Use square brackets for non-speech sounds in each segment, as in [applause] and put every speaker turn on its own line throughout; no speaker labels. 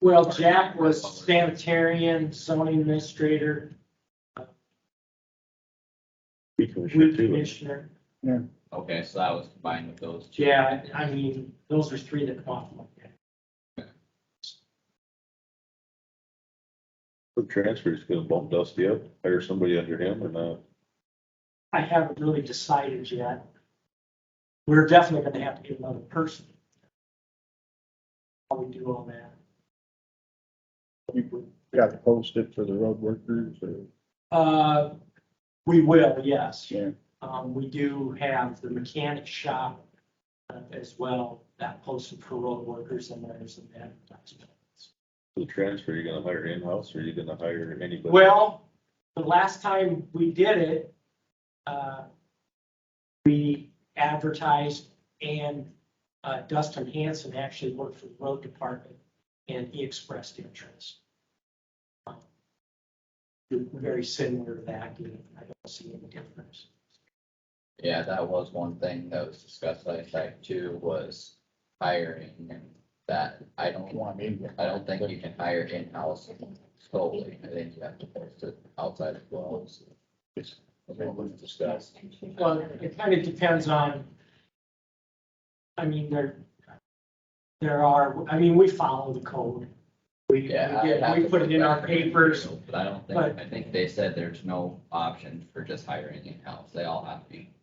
Well, Jack was sanitarian, zoning administrator, weed commissioner.
Okay, so that was combined with those two.
Yeah, I mean, those are three that come off like that.
The transfer is gonna bump Dusty up, hire somebody under him or not?
I haven't really decided yet. We're definitely gonna have to get another person. How we do all that.
You got to post it for the road workers or?
Uh, we will, yes.
Yeah.
Um, we do have the mechanic shop uh, as well, that posted for road workers and there's an advertisement.
The transfer, you gonna hire in-house or you gonna hire anybody?
Well, the last time we did it, uh, we advertised and uh, Dustin Hanson actually worked for the road department and he expressed interest. Um, Very similar to that, you know, I don't see any difference.
Yeah, that was one thing that was discussed last night too, was hiring and that I don't,
Well, I mean,
I don't think you can hire in-house solely. I think you have to post it outside as well. so
It's,
That's what was discussed.
Well, it kind of depends on, I mean, there, there are, I mean, we follow the code. We, we
Yeah. I
get-
have
we
to
put it in our
back in the
papers.
material, But I don't think,
but-
I think they said there's no option for just hiring in-house. They all have to be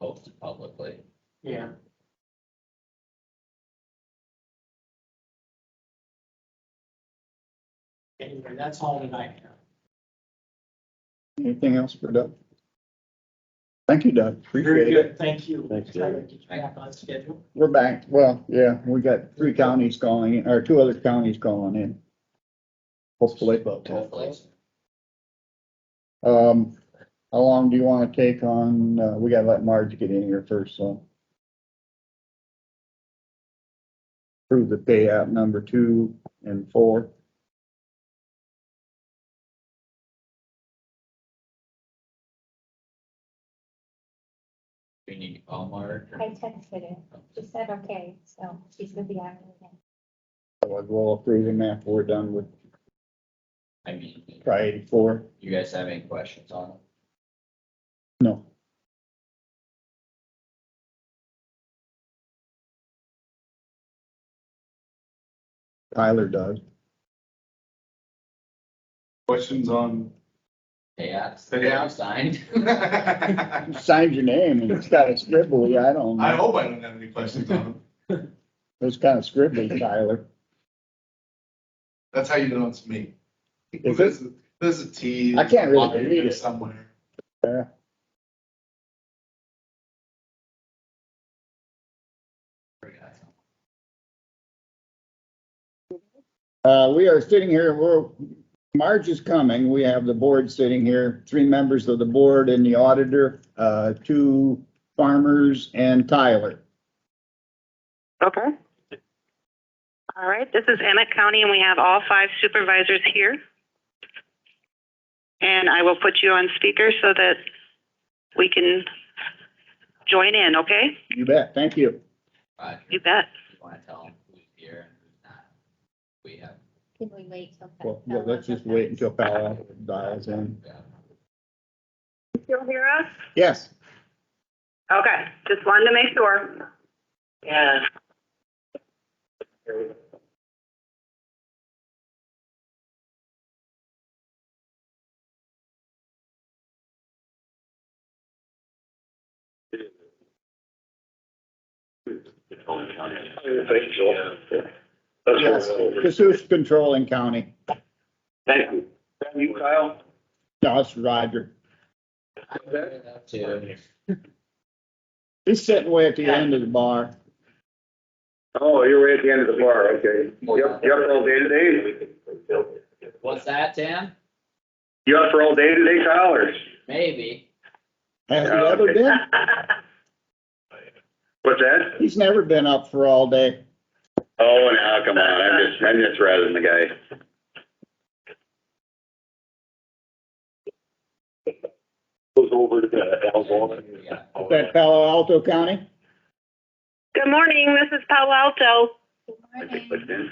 posted publicly.
Yeah. Anyway, that's all that I have.
anything else for Doug? Thank you, Doug.
Very
Appreciate it.
good, thank you.
Thanks,
Try to
David.
get you back on schedule.
We're back. Well, yeah, we got three counties calling, in or two other counties calling in. Hopefully.
Hopefully.
Um, how long do you want to take on, uh, we gotta let Marge get in here first, so. Prove the payout number two and four.
We need to call Mark.
I texted her. She said, okay, so she's gonna be on it again.
Otherwise, We'll approve them after we're done with
I mean,
priority four.
you guys have any questions on it?
No. Tyler does.
Questions on?
Payouts?
Payouts.
Signed? [laughs]
[laughs] I
Signs your name and it's got a scribbly, I don't know.
hope I don't have any questions on them.
It's kind of scribbly, Tyler.
That's how you know it's me.
Is
There's, a- there's a T.
I can't really read it.
Somewhere.
Yeah. Uh, we are sitting here, we're, Marge is coming. We have the board sitting here, three members of the board and the auditor, uh, two farmers and Tyler.
Okay. All right, this is Emmett County, and we have all five supervisors here. And I will put you on speaker so that we can join in, okay?
You bet. Thank you.
Roger,
You bet.
you wanna tell him who's here and who's not? We have.
Can we wait till?
Well, yeah, let's just wait until Powell dials in.
we have-
You still hear us?
Yes,
Okay, just wanted to make sure. Yeah.
Thank you, Joel. That's
yes.
what we're-
Cassous controlling county.
Thank you. Thank you, Kyle.
No, it's Roger.
Two.
He's sitting way at the end of the bar.
Oh, you're right at the end of the bar, okay.
Well,
You up, you up for all day today?
What's that, Tim?
You up for all day today, Kyle, or?
Maybe.
Has he ever been?
What's that?
He's never been up for all day.
Oh, now, come on, I'm just, I'm just rattling the guy. Goes over to the
Yeah.
Is that Palo Alto County?
Good morning, this is Palo Alto.
Good morning.